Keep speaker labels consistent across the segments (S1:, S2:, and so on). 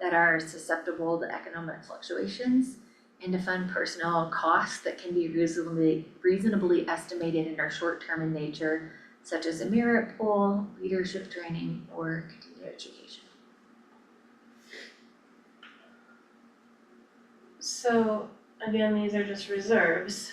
S1: that are susceptible to economic fluctuations and to fund personnel costs that can be reasonably reasonably estimated and are short-term in nature, such as a merit pool, leadership training, or continued education.
S2: So again, these are just reserves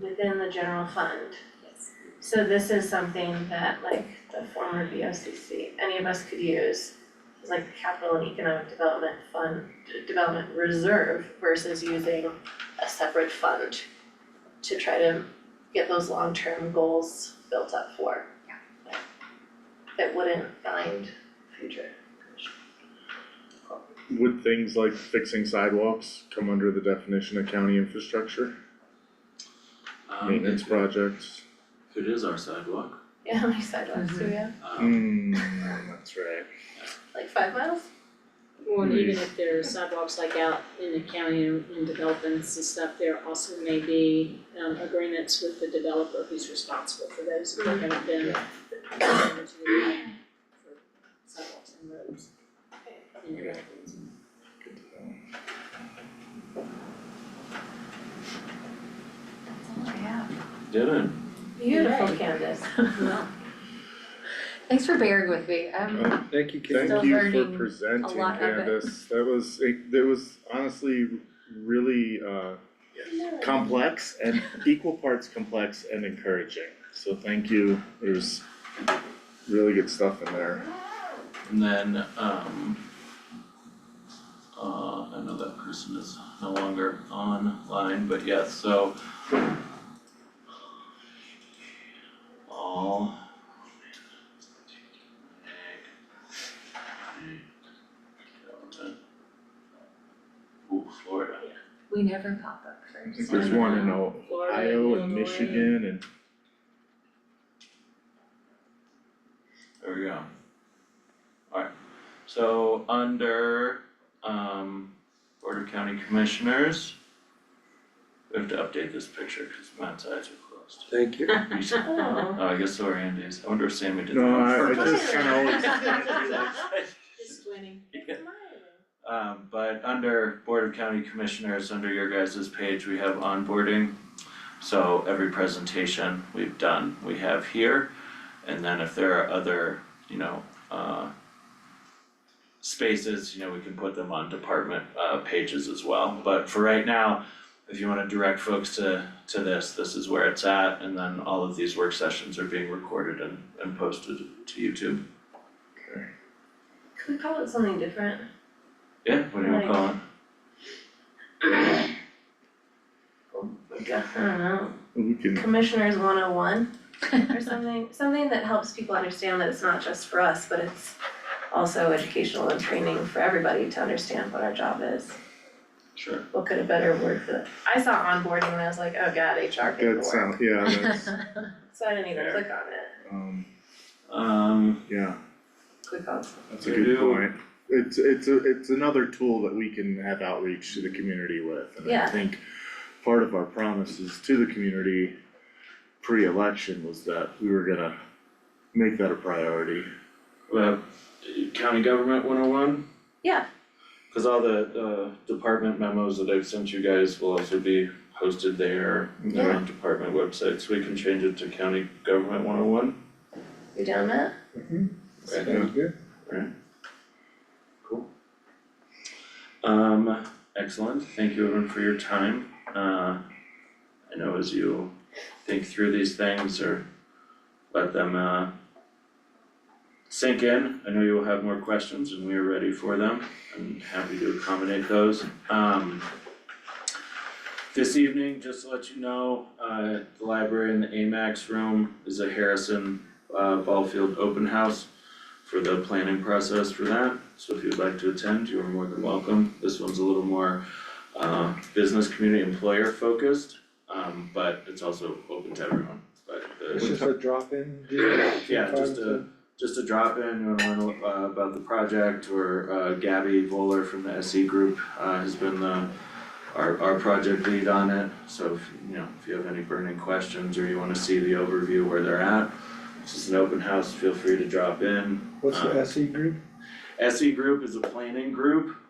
S2: within the general fund.
S1: Yes.
S2: So this is something that like the former BOCC, any of us could use. It's like capital and economic development fund, d- development reserve versus using a separate fund to try to get those long-term goals built up for.
S1: Yeah.
S2: That wouldn't bind future commission.
S3: Would things like fixing sidewalks come under the definition of county infrastructure,
S4: Um,
S3: maintenance
S4: if-
S3: projects?
S4: if It is our sidewalk,
S2: Yeah, how many sidewalks do we have?
S4: um,
S3: Hmm, that's right.
S2: Like five miles?
S5: Well, and
S3: Maybe.
S5: even if there are sidewalks like out in the county and and developments and stuff, there also may be um agreements with the developer who's responsible for those if they haven't been. um, to the plan for Sidewalks and roads and everything.
S3: Good to know.
S1: That's all I have.
S4: did it?
S2: Beautiful,
S5: Yay.
S2: Candace.
S1: Well. Thanks for bearing with me, Um, I'm
S3: Uh,
S6: Thank you, Kate.
S3: Thank
S1: Still
S3: you
S1: learning
S3: for
S1: a
S3: presenting,
S1: lot of it.
S3: Candace, that was, it, that was honestly really uh complex and equal parts complex and encouraging, so thank you, there's really good stuff in there.
S4: And then, um, uh, I know that person is no longer online, but yes, so. All. Ooh, Florida.
S1: we never pop up
S3: I
S1: first.
S3: think there's one in O-
S5: Florida,
S3: Iowa and
S5: Illinois.
S3: Michigan and
S4: There we go. Alright, so under um Board of County Commissioners. We have to update this picture because Matt's eyes are
S6: Thank you.
S4: closed. Oh, I guess so are Andy's. I wonder if Sammy did that
S3: No,
S4: on
S3: I- I
S4: purpose.
S3: just kinda
S5: Just winning.
S4: Um, but under Board of County Commissioners, under your guys' page, we have onboarding. So every presentation we've done, we have here. And then if there are other, you know, uh, spaces, you know, we can put them on department, uh, pages as well. But for right now, if you wanna direct folks to, to this, this is where it's at. And then all of these work sessions are being recorded and, and posted to YouTube.
S2: Could we call it something different?
S4: Yeah, what do you wanna call it?
S2: Like, uh, I don't know,
S3: we can
S2: Commissioners one oh one or something, something that helps people understand that it's not just for us, but it's also educational and training for everybody to understand what our job is.
S4: Sure.
S2: What could a better word for that? I saw onboarding and I was like, oh god, HR
S3: That
S2: paperwork,
S3: sound, yeah, that's,
S2: so I didn't even
S4: Fair.
S2: click on it.
S3: um,
S4: Um,
S3: yeah,
S2: Click on
S3: that's a
S4: We
S3: good
S4: do-
S3: point. It's, it's, a- it's another tool that we can have outreach to the community with, and I
S2: Yeah.
S3: think part of our promises to the community pre-election was that we were gonna make that a priority.
S4: uh, county government one oh one?
S2: Yeah.
S4: Cause all the, uh, department memos that I've sent you guys will also be posted there, on
S3: Yeah.
S4: department websites, we can change it to county government one oh one.
S2: You down that?
S3: Yeah.
S4: Cool. Um, excellent, thank you everyone for your time, uh, I know as you think through these things or let them, uh, sink in, I know you will have more questions and we are ready for them, I'm happy to accommodate those, um. This evening, just to let you know, uh, the library in the AMAX room is a Harrison, uh, Ballfield open house for the planning process for that. So if you'd like to attend, you are more than welcome. This one's a little more uh business community employer focused. Um but it's also open to everyone, but uh,
S6: This
S4: the,
S6: is a drop-in deal?
S4: yeah, just a, just a drop in, you wanna learn uh about the project or uh Gabby Voller from the SE group uh has been the our our project lead on it, so if you know, if you have any burning questions or you wanna see the overview where they're at. This is an open house, feel free to drop in. E
S6: What's
S4: uh,
S6: the SE group?
S4: SE group is a planning group,